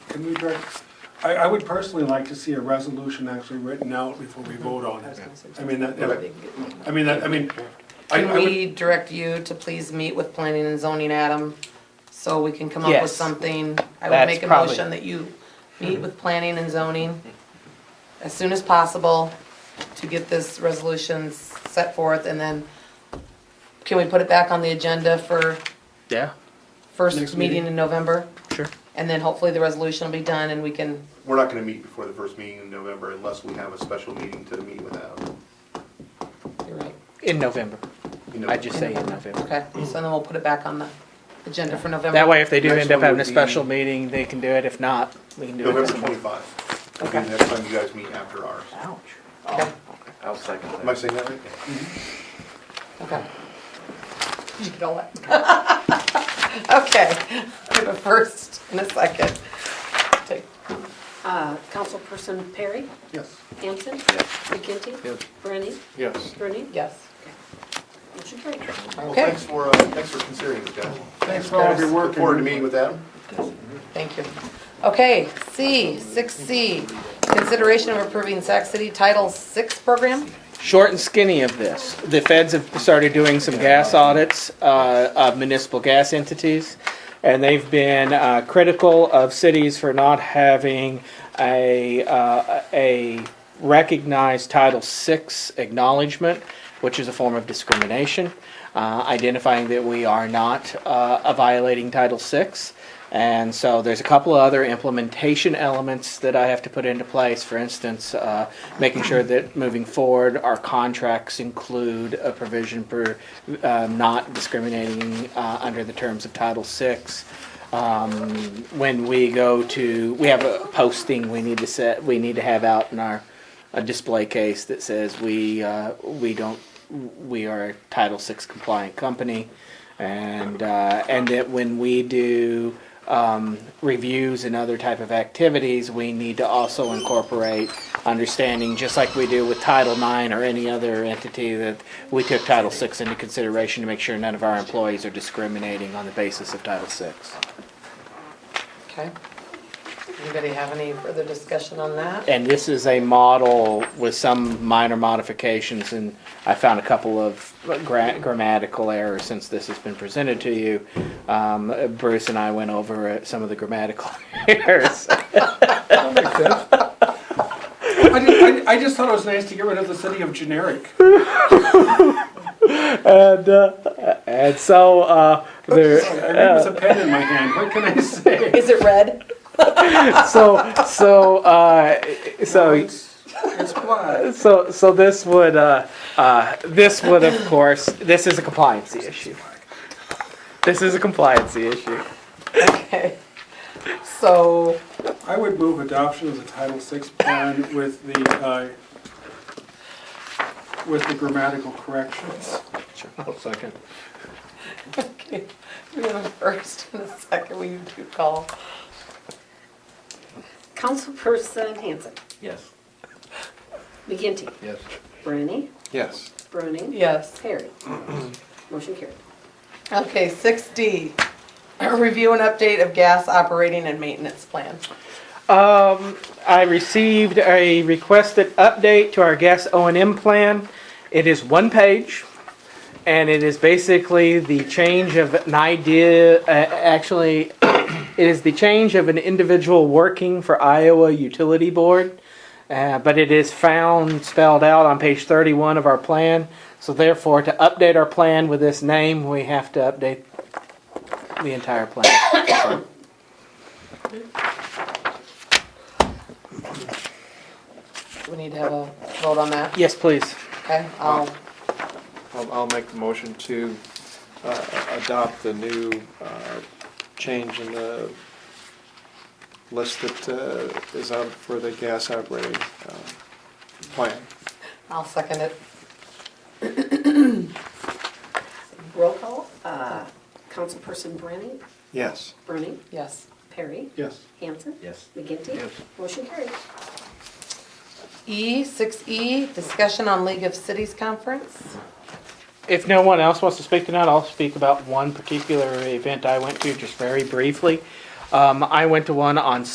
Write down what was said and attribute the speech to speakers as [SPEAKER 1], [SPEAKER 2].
[SPEAKER 1] Can we, direct- I, I would personally like to see a resolution actually written out before we vote on it. I mean, that, that- I mean, that, I mean, I, I
[SPEAKER 2] Can
[SPEAKER 1] would,
[SPEAKER 2] we direct you to please meet with planning and zoning, Adam? So we can come up with
[SPEAKER 3] Yes.
[SPEAKER 2] something. I would
[SPEAKER 3] That's
[SPEAKER 2] make a
[SPEAKER 3] probably-
[SPEAKER 2] motion that you meet with planning and zoning as soon as possible to get this resolution s- set forth and then can we put it back on the agenda for
[SPEAKER 3] Yeah,
[SPEAKER 1] Next
[SPEAKER 2] first
[SPEAKER 1] meeting.
[SPEAKER 2] meeting in November?
[SPEAKER 3] sure.
[SPEAKER 2] And then hopefully the resolution will be done and we can,
[SPEAKER 4] We're not gonna meet before the first meeting in November unless we have a special meeting to meet with uh, Adam.
[SPEAKER 2] you're right.
[SPEAKER 3] In November.
[SPEAKER 4] you know.
[SPEAKER 3] I just say in November.
[SPEAKER 2] Okay, so then we'll put it back on the agenda for November.
[SPEAKER 3] That way, if they do
[SPEAKER 4] Next
[SPEAKER 3] end up
[SPEAKER 4] one
[SPEAKER 3] having a
[SPEAKER 4] would be-
[SPEAKER 3] special meeting, they can do it. If not, we can do it.
[SPEAKER 4] November
[SPEAKER 3] next month.
[SPEAKER 4] twenty-five. It'll be
[SPEAKER 2] Okay.
[SPEAKER 4] the next time you guys meet after ours.
[SPEAKER 3] Ouch.
[SPEAKER 5] Oh. I'll second
[SPEAKER 4] Am I saying that right?
[SPEAKER 2] Okay. Did you get all that? Okay, I have a first and a second. Take-
[SPEAKER 6] Uh, Councilperson Perry,
[SPEAKER 4] Yes.
[SPEAKER 6] Hanson,
[SPEAKER 5] Yes.
[SPEAKER 6] McGinty,
[SPEAKER 5] Yes.
[SPEAKER 6] Brennan,
[SPEAKER 5] Yes.
[SPEAKER 6] Rooney,
[SPEAKER 2] Yes.
[SPEAKER 6] motion carried.
[SPEAKER 4] Well,
[SPEAKER 2] Okay.
[SPEAKER 4] thanks for, uh, thanks for considering it, guys.
[SPEAKER 1] thanks for all of your
[SPEAKER 4] Look
[SPEAKER 1] work.
[SPEAKER 4] forward to meeting with Adam.
[SPEAKER 2] Thank you. Okay, C, six C, consideration of approving Sac City Title VI program.
[SPEAKER 3] Short and skinny of this. The feds have started doing some gas audits uh, of municipal gas entities, and they've been uh, critical of cities for not having a uh, a recognized Title VI acknowledgement, which is a form of discrimination, uh, identifying that we are not uh, violating Title VI. And so there's a couple of other implementation elements that I have to put into place. For instance, uh, making sure that moving forward, our contracts include a provision for uh, not discriminating uh, under the terms of Title VI. Um, when we go to, we have a posting we need to set, we need to have out in our a display case that says we uh, we don't we are a Title VI compliant company, and uh, and that when we do um, reviews and other type of activities, we need to also incorporate understanding, just like we do with Title IX or any other entity, that we took Title VI into consideration to make sure none of our employees are discriminating on the basis of Title VI.
[SPEAKER 2] Okay. Anybody have any further discussion on that?
[SPEAKER 3] And this is a model with some minor modifications, and I found a couple of gra- grammatical errors since this has been presented to you. Um, Bruce and I went over uh, some of the grammatical errors.
[SPEAKER 1] I just, I, I just thought it was nice to get rid of the city of generic.
[SPEAKER 3] and, uh, and so uh,
[SPEAKER 1] Sorry,
[SPEAKER 3] there,
[SPEAKER 1] I read with a pen in my hand, what can I say?
[SPEAKER 2] Is it red?
[SPEAKER 3] so so uh, so.
[SPEAKER 1] It's it's black.
[SPEAKER 3] so so this would uh, uh, this would of course this is a compliancy issue. This is a compliancy issue.
[SPEAKER 2] Okay. So,
[SPEAKER 1] I would move adoption of the Title VI plan with the, uh, with the grammatical corrections.
[SPEAKER 5] I'll second.
[SPEAKER 2] okay, we have a first and a second. Will you do call?
[SPEAKER 6] Councilperson Hanson,
[SPEAKER 5] Yes.
[SPEAKER 6] McGinty,
[SPEAKER 5] Yes.
[SPEAKER 6] Brennan,
[SPEAKER 5] Yes.
[SPEAKER 6] Rooney,
[SPEAKER 2] Yes.
[SPEAKER 6] Perry, motion carried.
[SPEAKER 2] Okay, six D, review and update of gas operating and maintenance plan.
[SPEAKER 3] Um, I received a requested update to our gas O and M plan. It is one page, and it is basically the change of an idea. Uh, actually, it is the change of an individual working for Iowa Utility Board, uh, but it is found spelled out on page 31 of our plan. So therefore, to update our plan with this name, we have to update the entire plan.
[SPEAKER 2] We need to have a vote on that,
[SPEAKER 3] yes, please.
[SPEAKER 2] okay? I'll,
[SPEAKER 5] I'll, I'll make the motion to, uh, adopt the new, uh, change in the list that, uh, is out for the gas operating, uh, plan.
[SPEAKER 2] I'll second it.
[SPEAKER 6] Roll call, uh, Councilperson Brennan,
[SPEAKER 5] Yes.
[SPEAKER 6] Brennan,
[SPEAKER 2] Yes.
[SPEAKER 6] Perry,
[SPEAKER 1] Yes.
[SPEAKER 6] Hanson,
[SPEAKER 5] Yes.
[SPEAKER 6] McGinty,
[SPEAKER 5] Yes.
[SPEAKER 6] motion carried.
[SPEAKER 2] E, six E, discussion on League of Cities conference.
[SPEAKER 3] if no one else wants to speak tonight, I'll speak about one particular event I went to just very briefly. Um, I went to one on